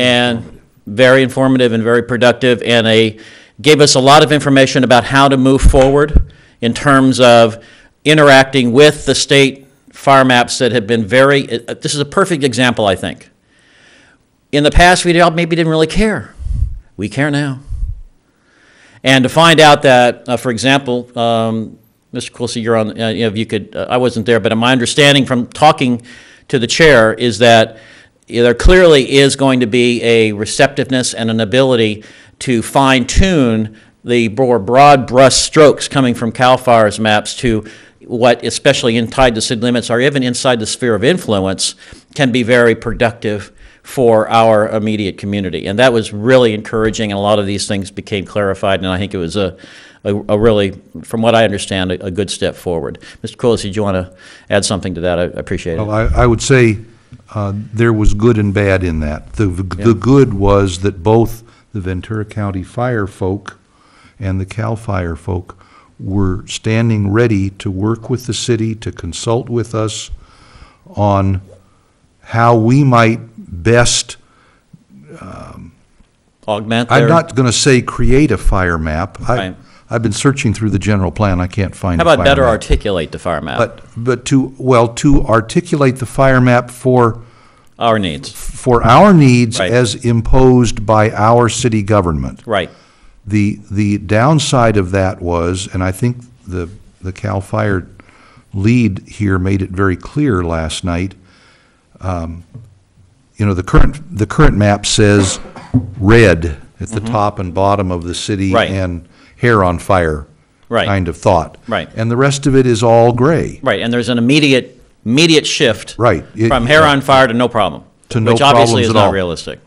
and very informative and very productive, and a, gave us a lot of information about how to move forward in terms of interacting with the state fire maps that have been very, uh, this is a perfect example, I think. In the past, we all maybe didn't really care. We care now. And to find out that, uh, for example, um, Mr. Quilisi, you're on, uh, you know, if you could, uh, I wasn't there, but my understanding from talking to the chair is that there clearly is going to be a receptiveness and an ability to fine tune the more broad brush strokes coming from CAL FIRE's maps to what, especially in tied to city limits or even inside the sphere of influence, can be very productive for our immediate community. And that was really encouraging, and a lot of these things became clarified, and I think it was a, a, a really, from what I understand, a, a good step forward. Mr. Quilisi, did you want to add something to that? I I appreciate it. Well, I, I would say uh, there was good and bad in that. The, the good was that both the Ventura County Fire folk and the CAL FIRE folk were standing ready to work with the city, to consult with us on how we might best, Augment I'm their, how not going to say create a fire map. I- Right. I've been searching through the general plan, I can't find a about fire better map. articulate the fire map, But, but to, well, to articulate the fire map for our needs? for our needs Right. as imposed by our city government. Right, The, the downside of that was, and I think the, the CAL FIRE lead here made it very clear last night, um, you know, the current, the current map says red at the top and bottom of the city Mm-hmm. Right. and hair on fire Right. kind of thought. Right. And the rest of it is all gray. right, and there's an immediate, immediate shift. Right. It- From hair on fire to no problem. To no Which obviously problems is at not all. realistic.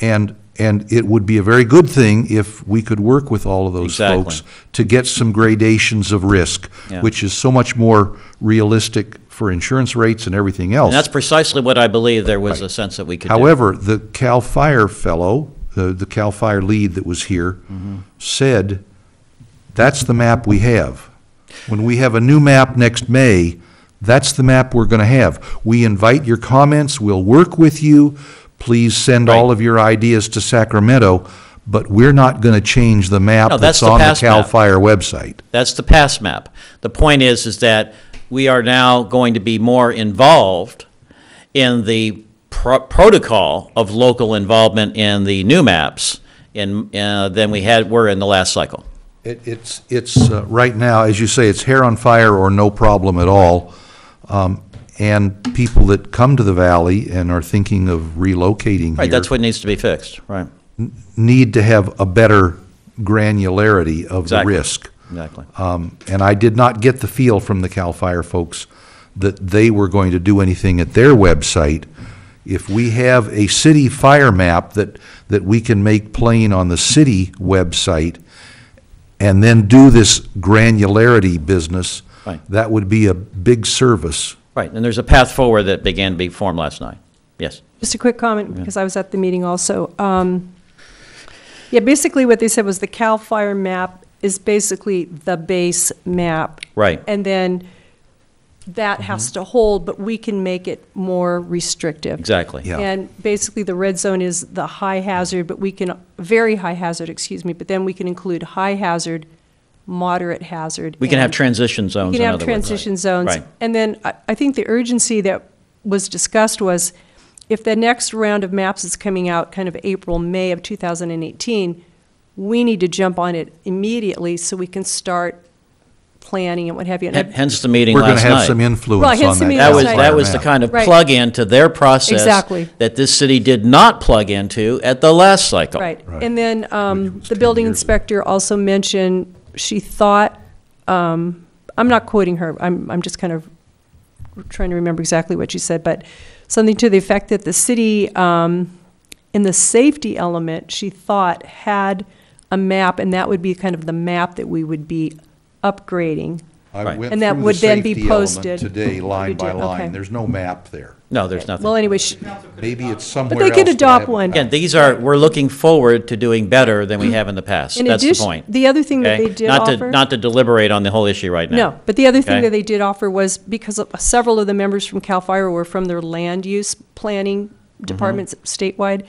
And, and it would be a very good thing if we could work with all of those Exactly. folks to get some gradations of risk, Yeah. which is so much more realistic for insurance rates and everything else. And that's precisely what I believe there was a sense that we could do. However, the CAL FIRE fellow, the, the CAL FIRE lead that was here, said, that's the map we have. When we have a new map next May, that's the map we're gonna have. We invite your comments, we'll work with you, please send all Right. of your ideas to Sacramento, but we're not gonna change the map No, that's that's the on the past CAL map. FIRE website. That's the past map. The point is, is that we are now going to be more involved in the pro- protocol of local involvement in the new maps in, uh, than we had, were in the last cycle. It, it's, it's, uh, right now, as you say, it's hair on fire or no problem at all. Um, And people that come to the valley and are thinking of relocating Right, that's here what needs to be fixed, right? need to have a better granularity of the Exactly. risk. Exactly. Um, And I did not get the feel from the CAL FIRE folks that they were going to do anything at their website. If we have a city fire map that, that we can make plain on the city website and then do this granularity business, Right. that would be a big service. Right, and there's a path forward that began to be formed last night. Yes, Just a quick comment, because I was at the meeting also. Um, Yeah, basically what they said was the CAL FIRE map is basically the base map. Right. Mm-hmm. And then that has to hold, but we can make it more restrictive. exactly. Yeah. And basically, the red zone is the high hazard, but we can, very high hazard, excuse me, but then we can include high hazard, moderate hazard. We can have and- transition zones, you in can have other words. transition zones. Right. And then I, I think the urgency that was discussed was if the next round of maps is coming out kind of April, May of 2018, we need to jump on it immediately so we can start planning and what have you. And I- H- Hence the meeting We're last night. going to have some influence Right, on that hence the meeting That CAL was, Right. that FIRE was the map. kind of Right. plug-in to their process. Exactly. That this city did not plug into at the last cycle. Right. Right. And then um, the building inspector also mentioned, she thought, um, I'm not quoting her, I'm, I'm just kind of trying to remember exactly what she said, but something to the effect that the city, um, in the safety element, she thought had a map, and that would be kind of the map that we would be upgrading. I Right. went And that through the would then be safety element posted. Today, line Did by you? Okay. line. There's no map there. No, there's nothing. Well, anyway, she, Maybe it's somewhere but else. they could that I adopt haven't one. Again, these are, we're looking forward to doing better than we have in the past. In That's the addition- point. the other thing that okay? they did Not to- offer- Not to deliberate on the whole issue right now. No, but the other thing Okay. that they did offer was, because of- Mm-hmm. several of the members from CAL FIRE were from their land use planning departments statewide,